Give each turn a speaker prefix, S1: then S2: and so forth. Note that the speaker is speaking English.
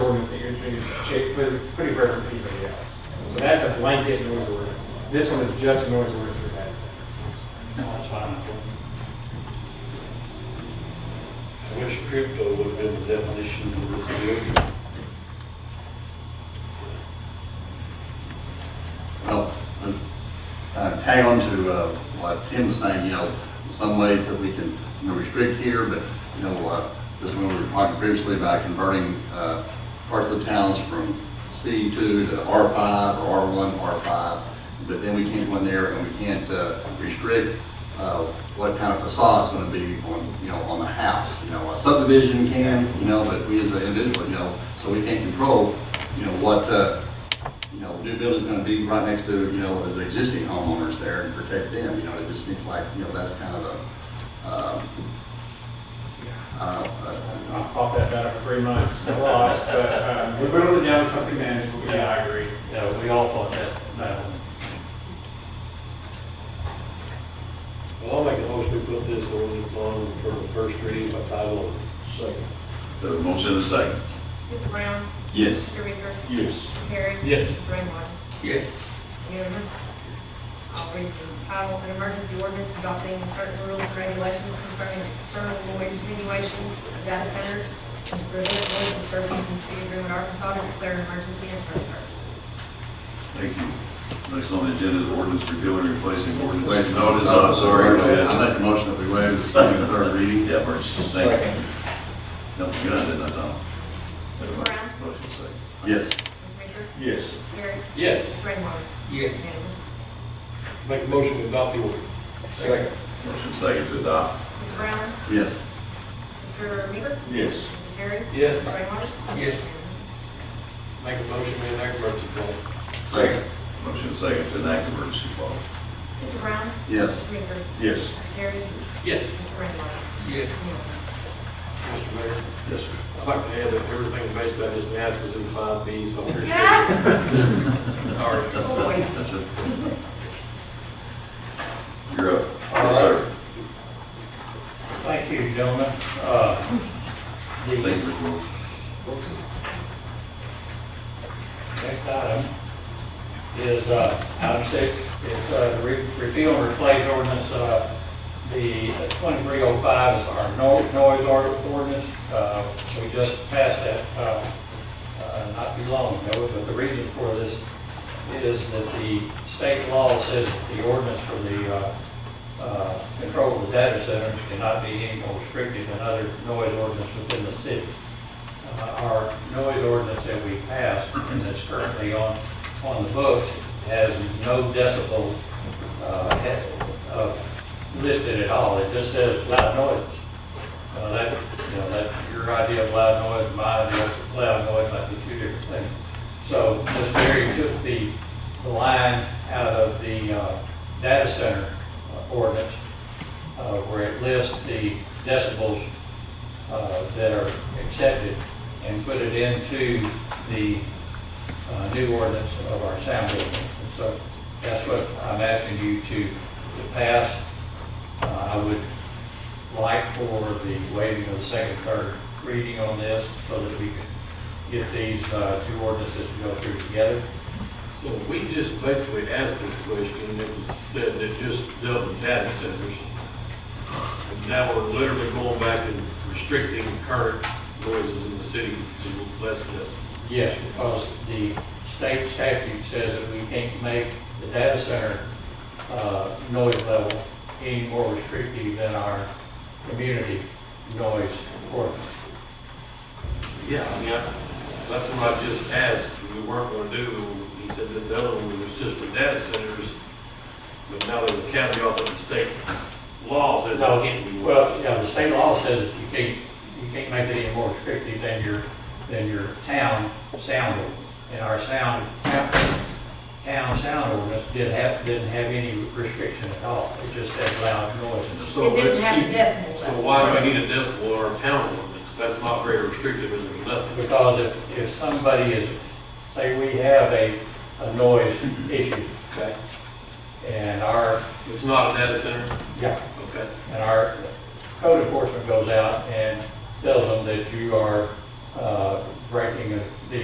S1: shape, with pretty rare for anybody else. So that's a blanket noise ordinance. This one is just a noise ordinance for that center.
S2: That's fine.
S3: I wish crypto would have been the definition of this deal.
S4: Well, uh, uh, tag on to uh, what Tim was saying, you know, some ways that we can you know, restrict here, but, you know, uh, just when we were talking previously about converting uh, parts of the towns from C2 to R5 or R1, R5, but then we can't go in there and we can't uh, restrict uh, what kind of facade's going to be on, you know, on the house. You know, a subdivision can, you know, but we as an individual, you know, so we can't control, you know, what, uh, you know, new building's gonna be right next to, you know, the existing homeowners there and protect them, you know, it just seems like, you know, that's kind of a, um, I don't know, uh,
S1: I've thought that about it for three months, I lost, but um, we're going down to something manageable, yeah, I agree.
S2: Yeah, we all thought that, that one.
S3: Well, I'll make a motion to put this ordinance on for the first reading by title only. Second.
S5: There's a motion and a second.
S6: Mr. Brown?
S5: Yes.
S6: Mr. Reaper?
S3: Yes.
S6: Mr. Terry?
S3: Yes.
S6: Mr. Rainwater?
S5: Yes.
S6: Unanimous. I'll read the title, an emergency ordinance adopting certain rules and regulations concerning external noise attenuation of data centers to prevent noise disturbance in the city of Greenwood, Arkansas, and declare an emergency and for other purposes.
S5: Thank you. Next on the agenda is ordinance repealing and replacing ordinance.
S4: wait,
S5: No, it is not, sorry. go ahead.
S4: I make the motion that we waive the second and third reading.
S5: Yeah, first, thank you. No, you didn't, I don't.
S6: Mr. Brown?
S5: Motion second.
S4: Yes.
S6: Mr. Reaper?
S3: Yes.
S6: Terry?
S3: Yes.
S6: Mr. Rainwater? Yes. Unanimous.
S3: Make a motion to adopt the ordinance. Second.
S5: Motion second to adopt.
S6: Mr. Brown?
S4: Yes.
S6: Mr. Reaper?
S3: Yes.
S6: Mr. Terry?
S3: Yes.
S6: Mr. Rainwater?
S3: Yes.
S6: Unanimous.
S3: Make a motion to enact emergency clause.
S5: Second. Motion second to enact emergency clause.
S6: Mr. Brown?
S4: Yes.
S6: Mr. Reaper?
S3: Yes.
S6: Mr. Terry?
S3: Yes.
S6: Mr. Rainwater?
S3: Yes.
S6: Unanimous.
S3: Mr. Mayor,
S5: Yes, sir.
S3: I'd like to add that everything based on this math was in five B, so I appreciate it. Sorry.
S6: Boy.
S5: That's it. You're up. Yes, sir.
S2: Thank you, gentlemen. Uh, The
S5: Thank you, Mr. Moore.
S2: next item is uh, item six, it's uh, re- repeal and replace ordinance, uh, the uh, 2305 is our no- noise or- ordinance. Uh, We just passed that uh, uh, not too long ago, but the reason for this is that the state law says that the ordinance for the uh, uh, control of the data centers cannot be any more restrictive than other noise ordinance within the city uh, our noise ordinance that we passed and that's currently on, on the books has no decibel uh, he- uh, listed at all. It just says loud noise. Uh, That, you know, that, your idea of loud noise, my idea of loud noise might be two different things. So Ms. Berry took the, the line out of the uh, data center ordinance uh, where it lists the decibels uh, that are accepted and put it into the uh, new ordinance of our sound ordinance. And So that's what I'm asking you to, to pass. Uh, I would like for the waiving of the second, third reading on this so that we can get these uh, two ordinances to go through together.
S3: So we just basically asked this question, and it was said that just dealt with data centers. And now we're literally going back and restricting current noises in the city to less decibels.
S2: Yes, because the state statute says that we can't make the data center uh, noise level any more restrictive than our community noise ordinance.
S3: Yeah. I mean, I- that's what I just asked, we weren't gonna do, he said that the other one was just the data centers, but now there's a caveat that the state law says that can't be.
S2: Well, yeah, the state law says you can't, you can't make it any more restrictive than your, than your town sound ordinance. And our sound, town sound ordinance did have, didn't have any restriction at all. It just said loud noises.
S3: So let's
S6: It didn't have a
S3: keep-
S6: decimal.
S3: So why do we need a decibel or a pound ordinance? That's not very restrictive, and there's nothing.
S2: Because if, if somebody is, say we have a, a noise issue
S3: Okay.
S2: and our,
S3: It's not a data center?
S2: yeah,
S3: Okay.
S2: and our code enforcement goes out and tells them that you are, uh, breaking the